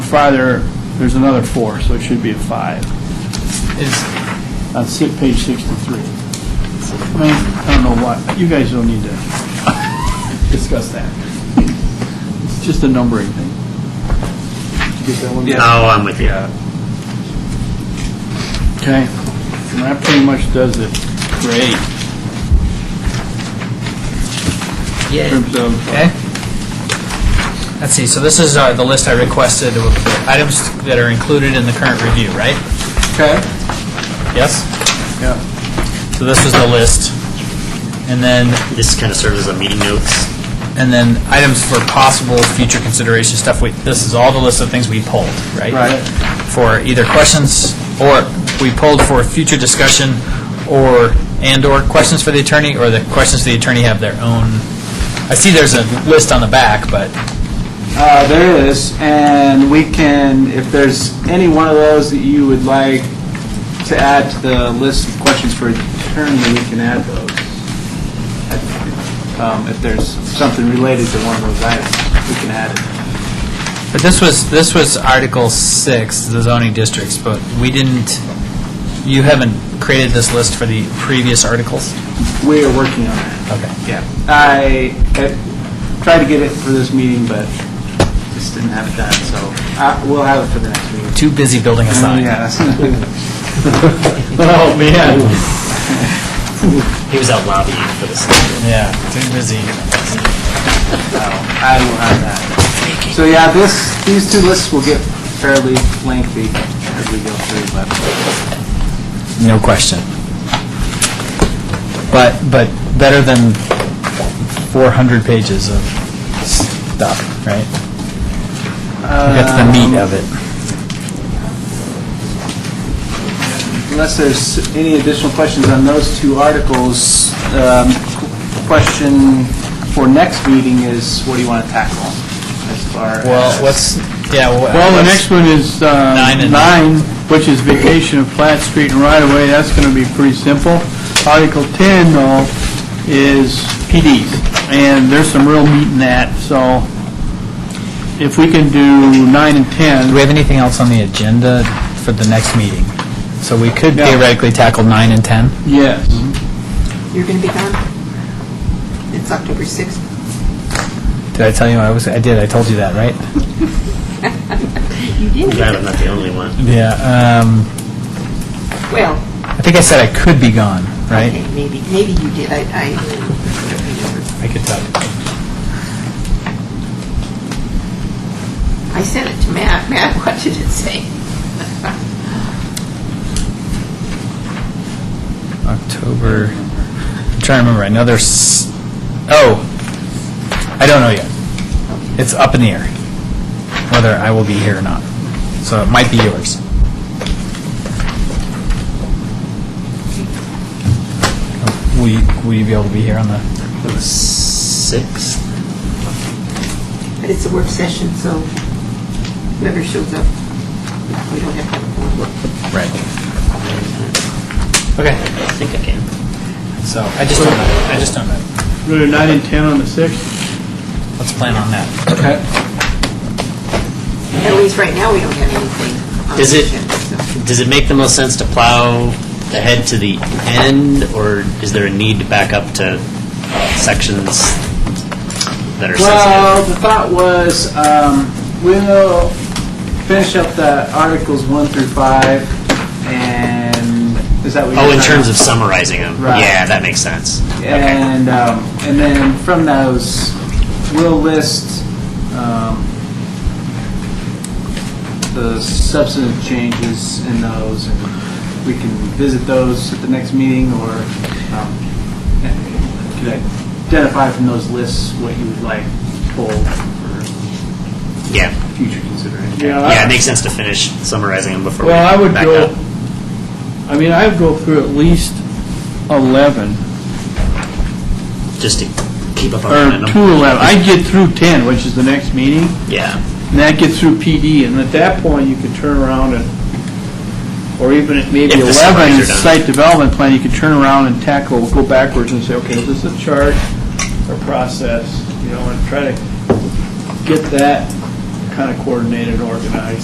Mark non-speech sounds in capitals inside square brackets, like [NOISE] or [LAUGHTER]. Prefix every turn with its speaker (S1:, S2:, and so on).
S1: farther, there's another four, so it should be a five.
S2: Is,
S1: On si- page 63. I mean, I don't know why, you guys don't need to discuss that. It's just a numbering thing. Did you get that one?
S3: Oh, I'm with you.
S1: Okay, and that pretty much does it. Great.
S2: yeah.
S1: In terms of,
S2: Okay. Let's see, so this is uh, the list I requested of items that are included in the current review, right?
S1: okay,
S2: Yes?
S1: yeah,
S2: So this was the list. And then,
S3: This kind of serves as a meeting notes.
S2: and then items for possible future consideration stuff, we, this is all the list of things we pulled, right?
S1: Right.
S2: For either questions, or we pulled for future discussion, or, and/or questions for the attorney, or the questions the attorney have their own, I see there's a list on the back, but,
S4: Uh, There is, and we can, if there's any one of those that you would like to add to the list of questions for attorney, we can add those. Um, If there's something related to one of those items, we can add it.
S2: but this was, this was Article 6, the zoning districts, but we didn't, you haven't created this list for the previous articles?
S4: We are working on that.
S2: Okay.
S4: Yeah. I I tried to get it for this meeting, but just didn't have it done, so uh, we'll have it for the next meeting.
S2: Too busy building a sign.
S4: [LAUGHS] Yeah.
S2: Oh, man.
S3: He was out lobbying for this.
S2: Yeah, too busy.
S4: Oh, I will have that. So yeah, this, these two lists will get fairly lengthy as we go through, but
S2: No question. But, but better than 400 pages of stuff, right? That's the meat of it.
S4: unless there's any additional questions on those two articles, um, question for next meeting is, what do you want to tackle as far as...
S2: Well, what's, yeah. wha-
S1: Well, the next one is uh,
S2: Nine and-
S1: nine, which is vacation of Platt Street and right-of-way. That's going to be pretty simple. Article 10, though, is PDs, and there's some real meat in that, so if we can do nine and
S2: Do
S1: 10,
S2: we have anything else on the agenda for the next meeting? So we could
S1: Yeah.
S2: theoretically tackle 9 and 10?
S1: yes.
S5: You're going to be gone? It's October 6th.
S2: Did I tell you I was, I did, I told you that, right?
S5: You
S3: I'm
S5: did?
S3: glad I'm not the only one.
S2: Yeah, um,
S5: Well,
S2: I think I said I could be gone, right?
S5: okay, maybe, maybe you did. I, I don't remember.
S2: I could tell.
S5: I sent it to Matt. [LAUGHS] Matt, what did it say?
S2: October, I'm trying to remember, I know there's, oh, I don't know yet. It's up in the air, whether I will be here or not. So it might be yours. Will you, will you be able to be here on the,
S3: Six?
S5: But it's a work session, so whoever shows up, we don't have to have a board.
S2: right? Okay,
S3: I think I can.
S2: so I just don't know, I just don't know.
S1: We're gonna do nine and 10 on the 6th?
S2: Let's plan on that.
S1: Okay.
S5: At least right now, we don't have anything on the
S3: Is it-
S5: agenda, so.
S3: Does it make the most sense to plow ahead to the end, or is there a need to back up to sections that are
S4: Well,
S3: sensitive?
S4: the thought was, um, we'll finish up the Articles 1 through 5, and is that what you're...
S3: Oh, in
S4: trying
S3: terms
S4: to-
S3: of summarizing them?
S4: Right.
S3: Yeah, that makes sense.
S4: And, um, and then from those, we'll list um, the substantive changes in those, and we can visit those at the next meeting, or um, and could identify from those lists what you would like pulled for
S3: Yeah.
S4: future consideration.
S1: Yeah.
S3: Yeah, it makes sense to finish summarizing them before we
S1: Uh, Well, I would
S3: back
S1: go,
S3: up.
S1: I mean, I would go through at least 11,
S3: Just to keep up
S1: or
S3: our
S1: two
S3: momentum.
S1: 11. I'd get through 10, which is the next meeting,
S3: Yeah.
S1: and that gets through PD, and at that point, you could turn around and, or even at maybe
S3: If the summaries
S1: 11,
S3: are done.
S1: site development plan, you could turn around and tackle, go backwards and say, okay, this is a chart or process, you know, and try to get that kind of coordinated, organized.